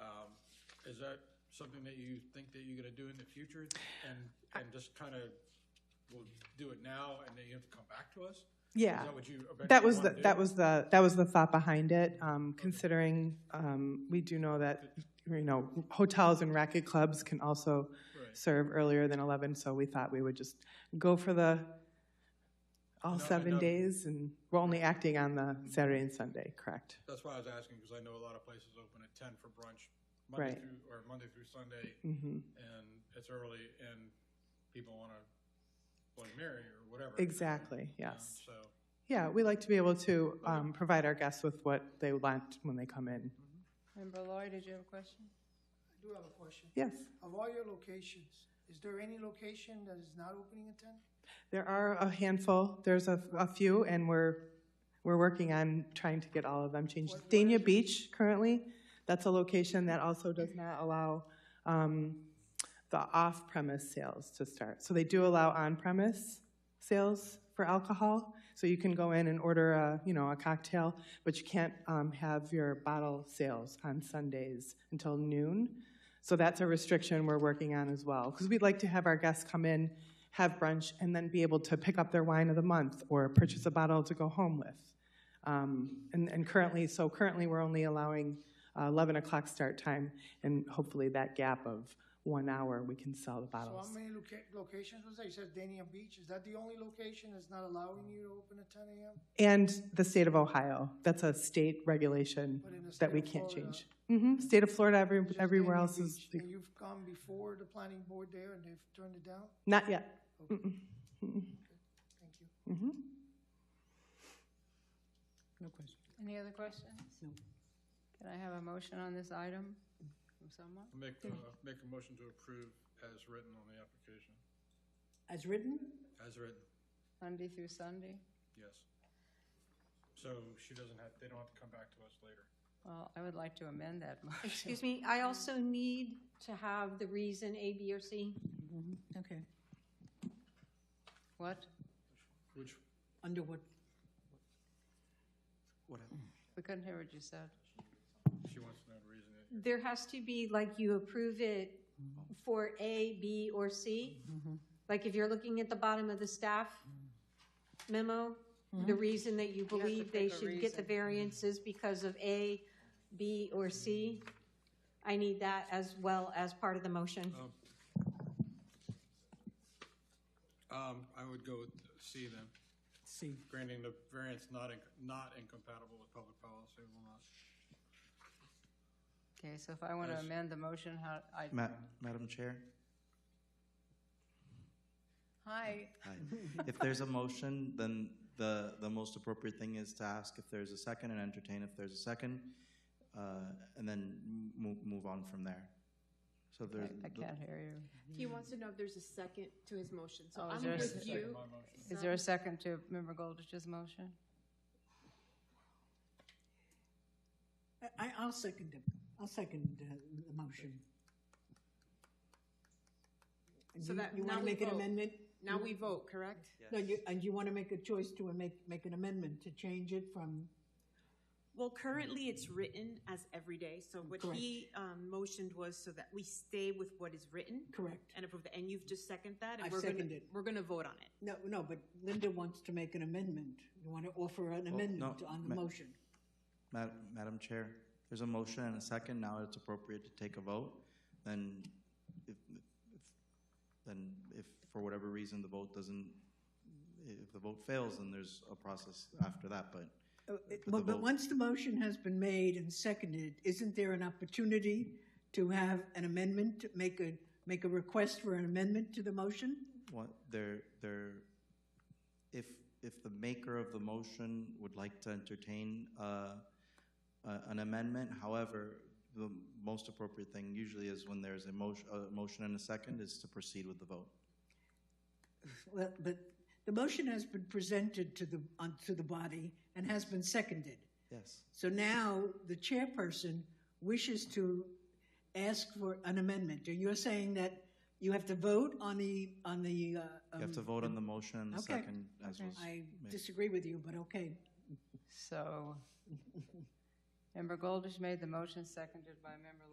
Um, Is that something that you think that you're gonna do in the future? And, and just kind of, we'll do it now and then you have to come back to us? Is Yeah, that what you eventually that was, the wanna do? that was the, that was the thought behind it, um, considering um, we do know that, you know, hotels and racket clubs can also Right. serve earlier than 11, so we thought we would just go for the, all No, I seven know. days, and we're only acting on the Saturday and Sunday, correct? That's why I was asking, because I know a lot of places open at ten for brunch, Monday Right. through, or Monday through Sunday, hmm and it's early, and people wanna Bloody Mary or whatever. Exactly, you know, yes. So, Yeah, we like to be able to um, provide our guests with what they want when they come in. Member Lloyd, did you have a question? I do have a question. Yes, Of all your locations, is there any location that is not opening at ten? there are a handful, there's a, a few, and we're, we're working on trying to get all of them changed. Dania Beach currently, that's a location that also does not allow um, the off-premise sales to start. So they do allow on-premise sales for alcohol, so you can go in and order a, you know, a cocktail, but you can't um, have your bottle sales on Sundays until noon. So that's a restriction we're working on as well, because we'd like to have our guests come in, have brunch, and then be able to pick up their wine of the month or purchase a bottle to go home with. Um, And and currently, so currently, we're only allowing uh, 11 o'clock start time, and hopefully that gap of one hour, we can sell the So bottles. how many loca- locations was there? You said Dania Beach. Is that the only location that's not allowing you to open at ten AM? And the state of Ohio, that's a state regulation But in the that state we of can't Florida- change. hmm state of Florida, every- Just everywhere Dania else is, Beach. And you've gone before the planning board there and they've turned it down? not yet. Thank you. No question. Any other questions? No. Can I have a motion on this item from someone? I'll make, uh, make a motion to approve as written on the application. As written? As written, Sunday through Sunday? yes. So she doesn't have, they don't have to come back to us later. Well, I would like to amend that motion. Excuse me, I also need to have the reason A, B, or C. Okay. What? Which, Under what? We couldn't hear what you said. she wants to know the reason. There has to be, like, you approve it for A, B, or C. Mm-hmm. Like, if you're looking at the bottom of the staff memo, the Mm-hmm. reason that you have to believe they pick a should get the reason. variance is because of A, B, or C. I need that as well as part of the motion. Um, I would go with C then, C. granting the variance not, inc- not incompatible with public policy will not. Okay, so if I want to Yes. amend the motion, how, I, Ma- Madam Chair, hi, hi. if there's a motion, then the, the most appropriate thing is to ask if there's a second and entertain if there's a second, uh, and then move, move on from there. So if I there's. I can't hear you. He wants to know if there's a second to his motion, so Mm. Oh, I'm is there a with second? you. Is there a second to Member Goldich's motion? I, I'll second it. I'll second uh, the motion. And So you- that- You now want to we make an vote. amendment? Now we vote, correct? No, you, and you want to make a choice to make, make an amendment to change it from, Well, currently it's written as every day, so what Correct. he, um, motioned was so that we stay with what is written correct? and approve, the- and you've just seconded that? and I've we're gonna- seconded. We're gonna vote on it. No, no, but Linda wants to make an amendment. You want to offer an amendment on the ma- motion. Ma- Madam Chair, there's a motion and a second, now it's appropriate to take a vote, then if, if, then if for whatever reason the vote doesn't, if the vote fails, then there's a process after that, but. the But, but vote- once the motion has been made and seconded, isn't there an opportunity to have an amendment, to make a, make a request for an amendment to the motion? What, there, there, if, if the maker of the motion would like to entertain, uh, a- an amendment, however, the most appropriate thing usually is when there's a motion, a motion and a second is to proceed with the vote. Well, but the motion has been presented to the, on, to the body and has been seconded. Yes. So now the chairperson wishes to ask for an amendment. And you're saying that you have to vote on the, on the, uh, You have to um, vote on the motion and the Okay. second as was. I disagree with you, but okay. So, Member Goldish made the motion, seconded by Member